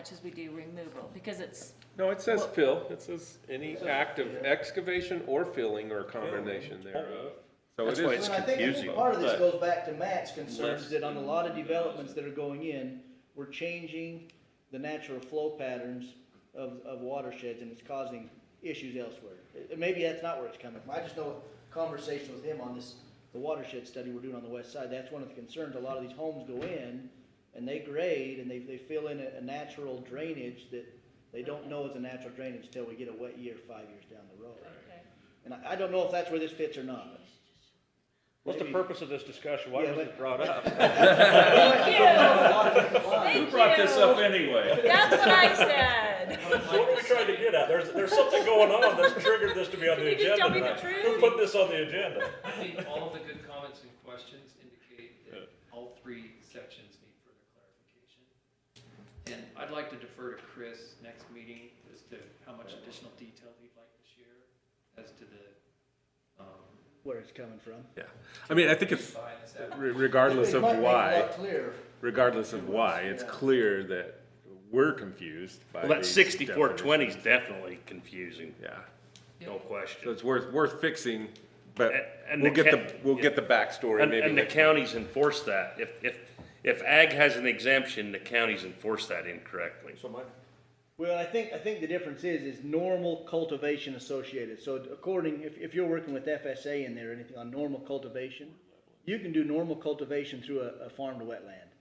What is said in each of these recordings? much as we do removal, because it's, No, it says fill, it says any act of excavation or filling or combination thereof. So it That's why is, it's Well, I think- I confusing, think part of this but- goes back to Matt's concerns Less- that on a lot of developments that are going in, we're changing the natural flow patterns of, of watersheds and it's causing issues elsewhere. Uh, Maybe that's not where it's coming from. I just know conversation with him on this, the watershed study we're doing on the west side, that's one of the concerns. A lot of these homes go in and they grade and they, they fill in a, a natural drainage that they don't know is a natural drainage until we get a wet year five years down the road. And I, I don't know if that's where this fits or not. What's the purpose of this discussion? Why Yeah, was but- it brought up? thank Who you. brought this up anyway? That's what I said. What are we trying to get at? There's, there's something going on that's triggered this to be on Can the you just tell agenda me the tonight. Who truth? put this on the agenda? I think all of the good comments and questions indicate that all three sections need further clarification. And I'd like to defer to Chris next meeting as to how much additional detail he'd like to share as to the, um, where it's coming from. yeah. I mean, I think it's, design this re- out. regardless of It might make it a why, lot clearer. regardless of why, it's clear that we're confused by Well, that these sixty-four twenty is definitions. definitely confusing, Yeah, no so question. it's worth, worth fixing, but And- and we'll the get the, ca- we'll get the backstory And, maybe. and the next- counties enforce that. If, if, if ag has an exemption, the counties enforce that incorrectly. Well, I think, I think the difference is, is normal cultivation associated. So according, if, if you're working with FSA in there, or anything on normal cultivation, you can do normal cultivation through a, a farm to wetland,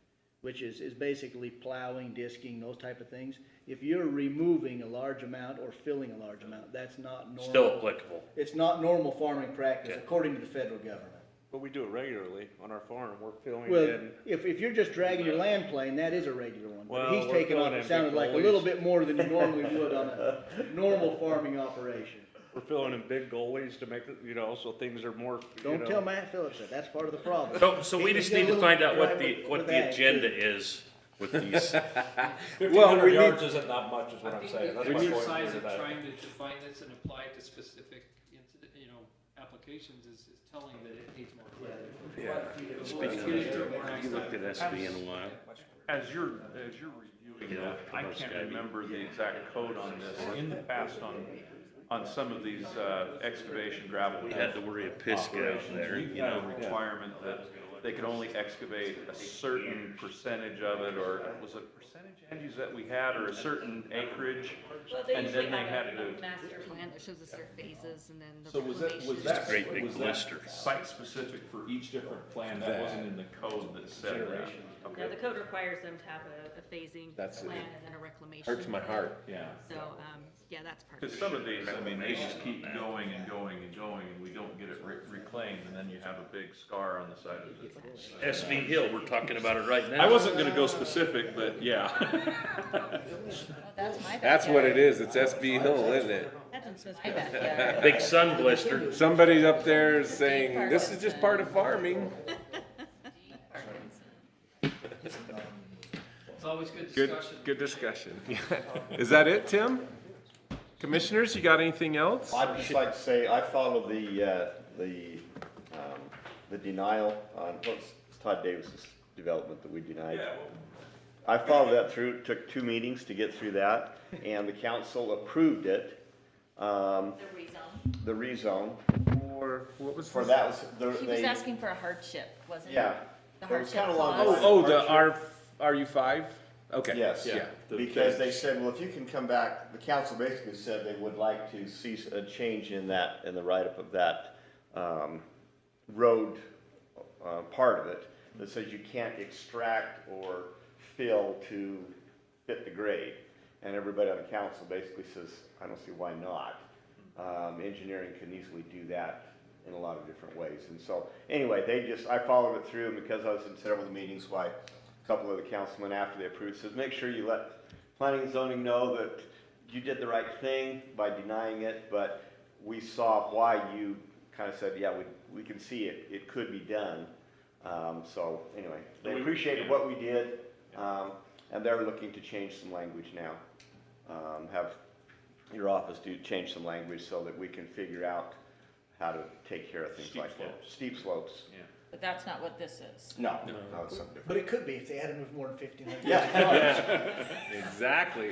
which is, is basically plowing, disking, those type of things. If you're removing a large amount or filling a large amount, that's not normal. Still applicable. It's not normal farming practice, Okay. according to the federal government. But we do it regularly on our farm. We're filling Well, in. if, if you're just dragging your land plane, that is a regular one, but Well, he's we're taking off, going in it sounded big like a goalies. little bit more than you normally would on a normal farming operation. We're filling in big goalies to make, it, you know, so things are more, you Don't tell know. Matt Phillips that, that's part of the problem. So, so we He's just got a need to little find out what drive the, with- what with the ag, too. agenda is with these. Fifteen hundred we need- yards isn't that much is what I I'm think saying. the That's my point. exercise of About it. trying to define this and apply it to specific, incident- you know, applications is, is telling that it needs more clarity. You looked at SB in a while. As you're, as you're reviewing that, I can't remember the exact code on this. In the past, on, on some of these uh, excavation gravel. We had to worry of Pisco operations, there, we you had a know. Requirement that they could only excavate a certain percentage of it, or was it percentage, Angie's, that we had, or a certain acreage? And then they had to, master plan that shows the certain phases and then the So was that, was reclamation. that, great big was that blister. site-specific for each different plan? That wasn't in the code that said that? No, the code requires them to have a, a phasing That's- plan and then a reclamation. Hurts my plan. heart. Yeah. So, um, yeah, that's part of Because it. some of these, I mean, they just keep going and going and going, and we don't get it re- reclaimed, and then you have a big scar on the side of it. SB Hill, we're talking about it right now. I wasn't gonna go specific, but yeah. That's my backyard. That's what it is, it's SB Hill, isn't it? That's in my backyard. Big sun blister. Somebody up there is saying, this is just part of farming. It's always good Good, discussion. good discussion. Is that it, Tim? Commissioners, you got anything else? I'd just like to say, I follow the, uh, the, um, the denial on, what's Todd Davis's development that we denied? I followed that through, It took two meetings to get through that, and the council approved it, um, The reason. the rezone, Or what was for this? that was, the- He was they, asking for a hardship, wasn't he? yeah. The It hardship was kinda along clause. lines of Oh, the hardship. R, RU five? Okay. Yes, Yeah. because they said, well, if you can come back, the council basically said they would like to see a change in that, in the write-up of that, um, road, uh, part of it, that says you can't extract or fill to fit the grade. And everybody on the council basically says, I don't see why not. Um, engineering can easily do that in a lot of different ways. And so, anyway, they just, I followed it through, and because I was in several of the meetings, why, a couple of the councilmen after they approved says, make sure you let planning and zoning know that you did the right thing by denying it, but we saw why you kind of said, yeah, we, we can see it, it could be done. Um, so, anyway, they appreciated what we did, um, and they're looking to change some language now. Um, have your office do change some language so that we can figure out how to take care of things Steep like that. slopes. Steep slopes. Yeah. But that's not what this is. No, no, it's something different. But it could be if they had to move more than fifteen hundred. Yeah. Exactly.